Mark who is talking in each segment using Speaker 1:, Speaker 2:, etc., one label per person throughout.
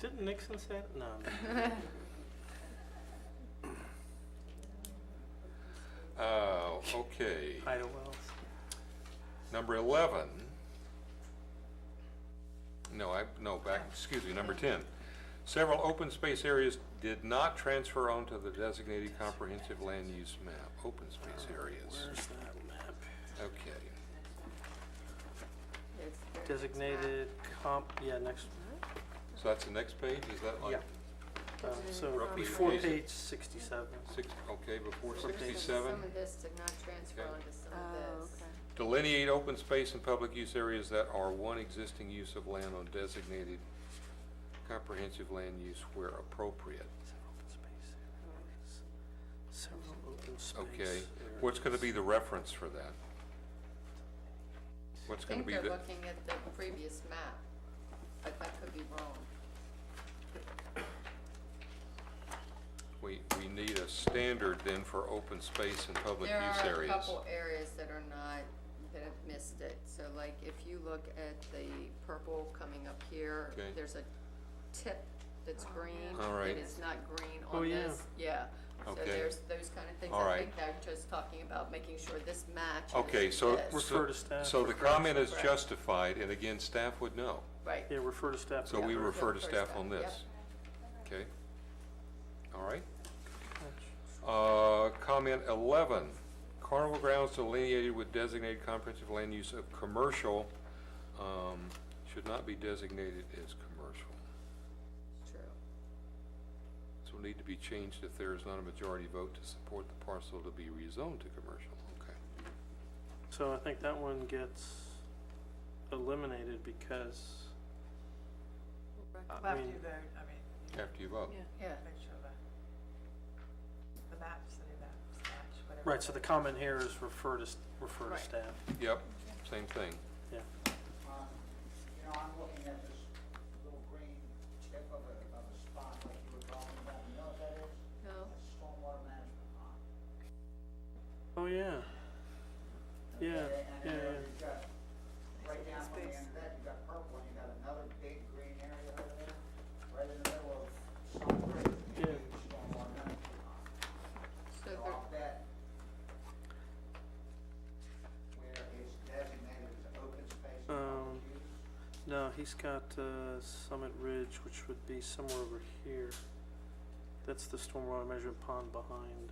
Speaker 1: Didn't Nixon say it? No.
Speaker 2: Uh, okay,
Speaker 1: Ida Wells.
Speaker 2: number eleven. No, I, no, back, excuse me, number ten. Several open space areas did not transfer onto the designated comprehensive land use map, open space areas.
Speaker 1: Where's that map?
Speaker 2: Okay,
Speaker 3: It's there.
Speaker 1: Designated comp, yeah, next,
Speaker 2: so that's the next page, is that like
Speaker 1: Yeah. um, so
Speaker 2: Roughly
Speaker 1: before
Speaker 2: adjacent.
Speaker 1: page sixty-seven.
Speaker 2: six, okay, before
Speaker 1: Some- some-
Speaker 2: sixty-seven?
Speaker 3: Some of this did not transfer
Speaker 2: Okay.
Speaker 3: onto some
Speaker 4: Oh,
Speaker 3: of this.
Speaker 4: okay.
Speaker 2: Delineate open space and public use areas that are one existing use of land on designated comprehensive land use where appropriate.
Speaker 1: Several open space
Speaker 2: Okay,
Speaker 1: areas.
Speaker 2: what's gonna be the reference for that? What's
Speaker 3: I
Speaker 2: gonna
Speaker 3: think
Speaker 2: be
Speaker 3: they're
Speaker 2: the,
Speaker 3: looking at the previous map, but that could be wrong.
Speaker 2: we, we need a standard then for open space and public
Speaker 3: There
Speaker 2: use
Speaker 3: are a
Speaker 2: areas.
Speaker 3: couple areas that are not, that have missed it. So like if you look at the purple coming up here,
Speaker 2: Okay.
Speaker 3: there's a tip that's
Speaker 4: Oh,
Speaker 3: green.
Speaker 2: All right.
Speaker 3: And it's not green
Speaker 1: Oh,
Speaker 3: on
Speaker 1: yeah.
Speaker 3: this. Yeah. So
Speaker 2: Okay.
Speaker 3: there's those kind of things.
Speaker 2: All
Speaker 3: I
Speaker 2: right.
Speaker 3: think they're just talking about making sure this matches
Speaker 2: Okay, so,
Speaker 3: this.
Speaker 1: Refer to staff
Speaker 2: so
Speaker 1: for
Speaker 2: the comment is
Speaker 3: correction.
Speaker 2: justified, and again, staff would know,
Speaker 3: Right.
Speaker 1: Yeah, refer to staff.
Speaker 2: so we
Speaker 3: Yeah.
Speaker 1: member.
Speaker 2: refer to
Speaker 3: Refer to
Speaker 2: staff
Speaker 3: staff,
Speaker 2: on this. Okay? All right? Uh, Comment 11, carnival grounds delineated with designated comprehensive land use of commercial um, should not be designated as commercial.
Speaker 3: True.
Speaker 2: So will need to be changed if there is not a majority vote to support the parcel to be rezoned to commercial. Okay.
Speaker 1: So I think that one gets eliminated because,
Speaker 5: After
Speaker 1: I
Speaker 5: you
Speaker 1: mean-
Speaker 5: vote, I mean, you
Speaker 2: After you vote.
Speaker 3: Yeah.
Speaker 5: make sure that the maps, the new maps, match whatever.
Speaker 1: right, so the comment here is refer to, s- refer to
Speaker 3: Right.
Speaker 1: staff.
Speaker 2: Yep, same thing.
Speaker 1: Yeah,
Speaker 6: Um, You know, I'm looking at this little green tip of a, of a spot like you were talking about, you know what that is?
Speaker 3: No?
Speaker 6: That's stormwater management pond.
Speaker 1: oh, yeah. Yeah,
Speaker 6: Okay, And
Speaker 1: yeah,
Speaker 6: then
Speaker 1: yeah.
Speaker 6: you've got, right down from the end of that, you've got purple, and you've got another big green area over there, right in the middle of some bridge,
Speaker 1: Yeah.
Speaker 6: stormwater management pond.
Speaker 3: So
Speaker 6: So
Speaker 3: there,
Speaker 6: I'll bet where it's designated as open space and
Speaker 1: Um,
Speaker 6: public use.
Speaker 1: No, he's got uh, Summit Ridge, which would be somewhere over here. That's the stormwater measurement pond behind,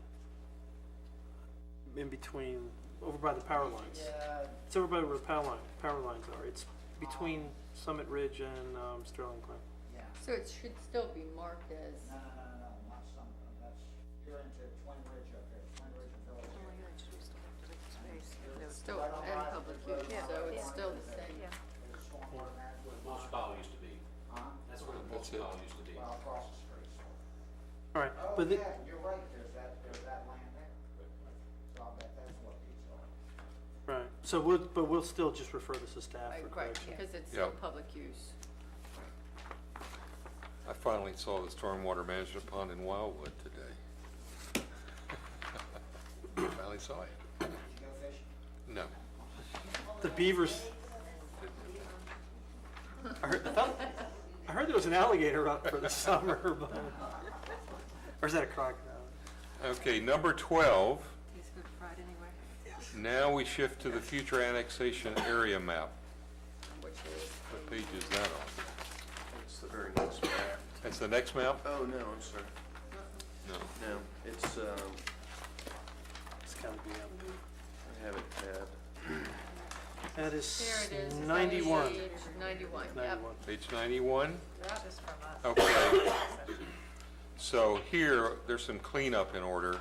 Speaker 1: in between, over by the power lines.
Speaker 6: Yeah,
Speaker 1: It's over by where the power line, power lines are. It's between Summit Ridge and um, Sterling Glen.
Speaker 6: yeah.
Speaker 3: so it should still be marked as.
Speaker 6: No, no, no, no, no, not some, that's, you're into Twin Ridge up there, Twin Ridge
Speaker 4: Oh
Speaker 6: and Village.
Speaker 3: Still, and public use, so it's still the same.
Speaker 6: There's a stormwater management
Speaker 7: Wolf's
Speaker 6: pond,
Speaker 7: Pile used to be,
Speaker 6: huh?
Speaker 7: that's where the Wolf's
Speaker 2: That's it.
Speaker 7: Pile used to be.
Speaker 6: Well, across the street.
Speaker 1: All right,
Speaker 6: Oh,
Speaker 1: but the,
Speaker 6: yeah, you're right, there's that, there's that land there. So I bet that's what these are.
Speaker 1: right. So we'll, but we'll still just refer this to staff for
Speaker 3: Right,
Speaker 1: correction.
Speaker 3: because it's still
Speaker 2: Yeah.
Speaker 3: public use.
Speaker 2: I finally saw the stormwater management pond in Wildwood today. Finally saw it.
Speaker 6: Did you go fishing?
Speaker 2: No.
Speaker 1: The beavers. I heard, I thought, I heard there was an alligator up for the summer, but, or is that a crocodile?
Speaker 2: Okay, number 12.
Speaker 4: He's good fried anyway.
Speaker 2: Now we shift to the future annexation area map.
Speaker 3: Which is,
Speaker 2: What page is that on?
Speaker 8: It's the very next map.
Speaker 2: That's the next map?
Speaker 8: Oh, no, I'm sorry.
Speaker 2: No.
Speaker 8: No, it's, um,
Speaker 1: It's gotta be up.
Speaker 8: I have it tab.
Speaker 1: That
Speaker 3: there
Speaker 1: is
Speaker 3: it is. it's
Speaker 1: ninety-one.
Speaker 3: 91, yep.
Speaker 1: Ninety-one.
Speaker 2: Page ninety-one?
Speaker 3: Yep.
Speaker 5: Just from us.
Speaker 2: Okay. So here, there's some cleanup in order.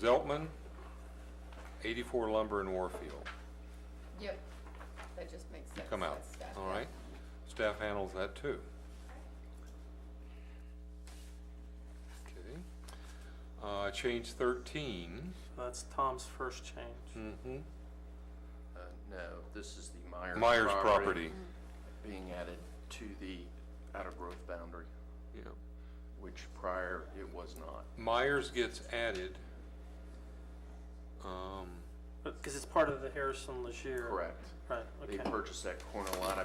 Speaker 2: Zeltman, eighty-four Lumber and Warfield,
Speaker 3: Yep, that just makes sense.
Speaker 2: come out,
Speaker 3: That's that.
Speaker 2: all right? Staff handles that too. Okay. Uh, change thirteen.
Speaker 1: That's Tom's first change.
Speaker 2: Mm-hmm.
Speaker 8: Uh, No, this is the Myers property.
Speaker 2: Myers property.
Speaker 8: Being added to the out-of-growth boundary,
Speaker 2: Yeah.
Speaker 8: which prior it was not.
Speaker 2: Myers gets added. Um,
Speaker 1: Because it's part of the Harrison Legere.
Speaker 8: Correct.
Speaker 1: Right,
Speaker 8: They
Speaker 1: okay.
Speaker 8: purchased that corner lot, I